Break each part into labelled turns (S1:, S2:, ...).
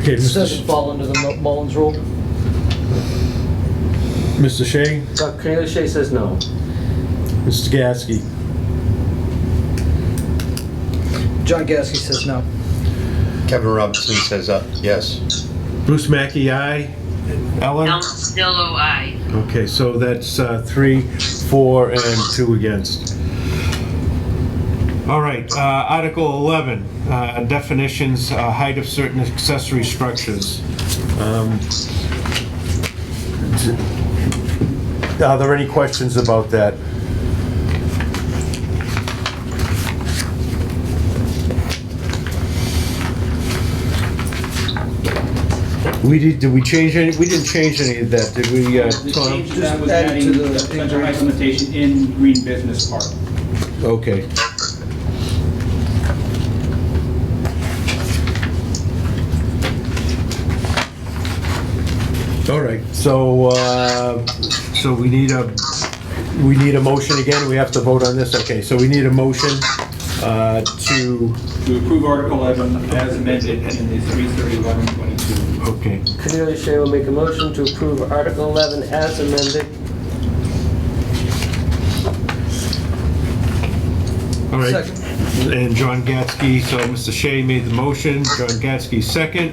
S1: Okay,
S2: This
S1: Mr.
S2: doesn't fall under the Mu- Mullins rule.
S1: Mr. Shea,
S3: Uh, Cornelius Shea says no.
S1: Mr. Gasky,
S2: John Gasky says no.
S4: Kevin Robinson says, uh, yes.
S1: Bruce Mackey, aye. Ellen?
S5: Ellen Sodillo, aye.
S1: Okay, so that's uh, three, four, and two against. All right, uh, Article 11, uh, definitions, uh, height of certain accessory structures. Um, d- Are there any questions about that? We did, did we change any, we didn't change any of that, did we, uh,
S6: The
S1: Tom?
S6: change to that was
S2: Add it
S6: adding
S2: to the-
S6: such a height limitation in green business park.
S1: Okay. All right, so, uh, so we need a, we need a motion again, we have to vote on this, okay, so we need a motion uh, to,
S6: To approve Article 11 as amended in the 330-1122.
S1: okay,
S3: Cornelius Shea will make a motion to approve Article 11 as amended.
S1: all right.
S2: Second.
S1: And John Gatsky, so Mr. Shea made the motion, John Gatsky second.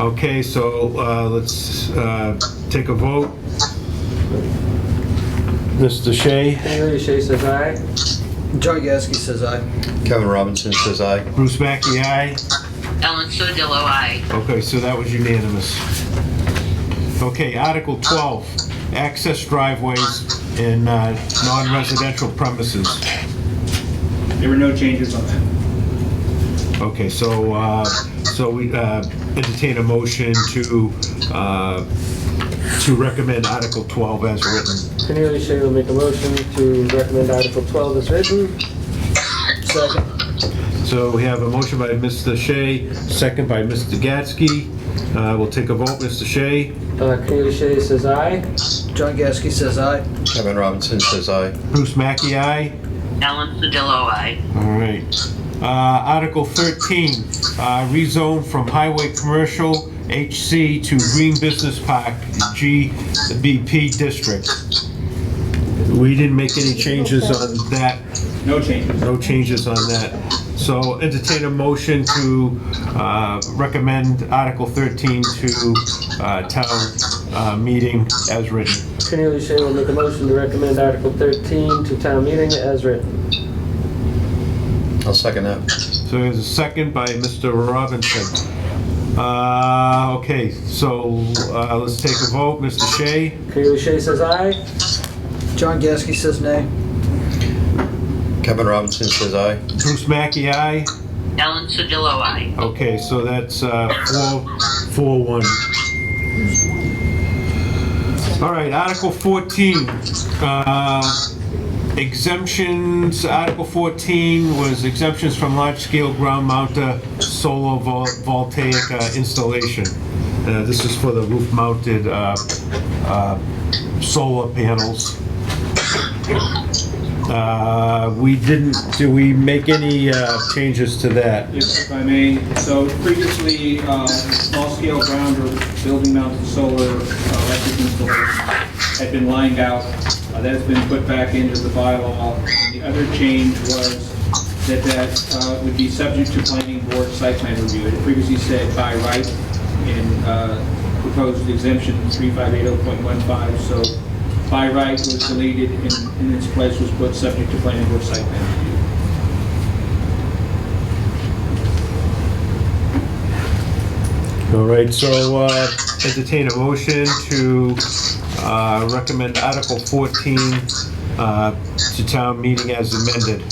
S1: Okay, so uh, let's uh, take a vote. Mr. Shea?
S3: Cornelius Shea says aye.
S2: John Gasky says aye.
S4: Kevin Robinson says, aye.
S1: Bruce Mackey, aye.
S5: Ellen Sodillo, aye.
S1: Okay, so that was unanimous. Okay, Article 12, access driveways in uh, non-residential premises.
S6: There were no changes on that.
S1: Okay, so, uh, so we uh, entertain a motion to, uh, to recommend Article 12 as written.
S3: Cornelius Shea will make a motion to recommend Article 12 as written.
S2: Second.
S1: So we have a motion by Mr. Shea, second by Mr. Gatsky. Uh, We'll take a vote, Mr. Shea.
S3: Uh, Cornelius Shea says aye.
S2: John Gasky says aye.
S4: Kevin Robinson says, aye.
S1: Bruce Mackey, aye.
S5: Ellen Sodillo, aye.
S1: All right. Uh, Article 13, uh, rezone from highway commercial HC to green business park GBP district. We didn't make any changes on that,
S6: No changes.
S1: no changes on that. So entertain a motion to uh, recommend Article 13 to uh, town uh, meeting as written.
S3: Cornelius Shea will make a motion to recommend Article 13 to town meeting as written.
S4: I'll second that.
S1: So there's a second by Mr. Robinson. Uh, okay, so, uh, let's take a vote. Mr. Shea?
S3: Cornelius Shea says aye.
S2: John Gasky says nay.
S4: Kevin Robinson says, aye.
S1: Bruce Mackey, aye?
S5: Ellen Sodillo, aye.
S1: Okay, so that's, uh, four, four, one. All right, Article fourteen, uh, exemptions, Article fourteen was exemptions from large-scale ground mounted solar vol- voltaic uh, installation. Uh, this is for the roof-mounted, uh, uh, solar panels. Uh, we didn't, do we make any, uh, changes to that?
S6: If if I may, so previously, uh, small-scale ground or building-mounted solar uh, electric installation had been lined out. Uh, That has been put back into the bylaw. The other change was that that uh, would be subject to planning board site plan review. It previously said by right in uh, proposed exemption 3580.15, so by right was deleted and in its place was put subject to planning board site plan review.
S1: All right, so uh, entertain a motion to uh, recommend Article 14 uh, to town meeting as amended.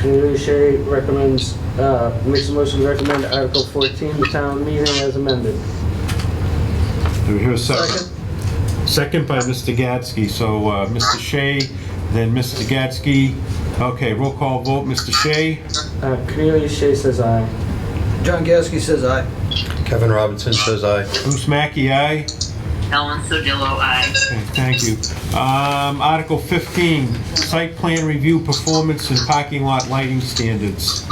S3: Cornelius Shea recommends, uh, makes a motion to recommend Article 14 to town meeting as amended.
S1: Do we hear a second?
S2: Second.
S1: Second by Mr. Gatsky, so uh, Mr. Shea, then Mr. Gatsky. Okay, roll call vote, Mr. Shea,
S3: Uh, Cornelius Shea says aye.
S2: John Gasky says aye.
S4: Kevin Robinson says, aye.
S1: Bruce Mackey, aye.
S5: Ellen Sodillo, aye.
S1: Okay, Thank you. Um, Article 15, site plan review performance and parking lot lighting standards.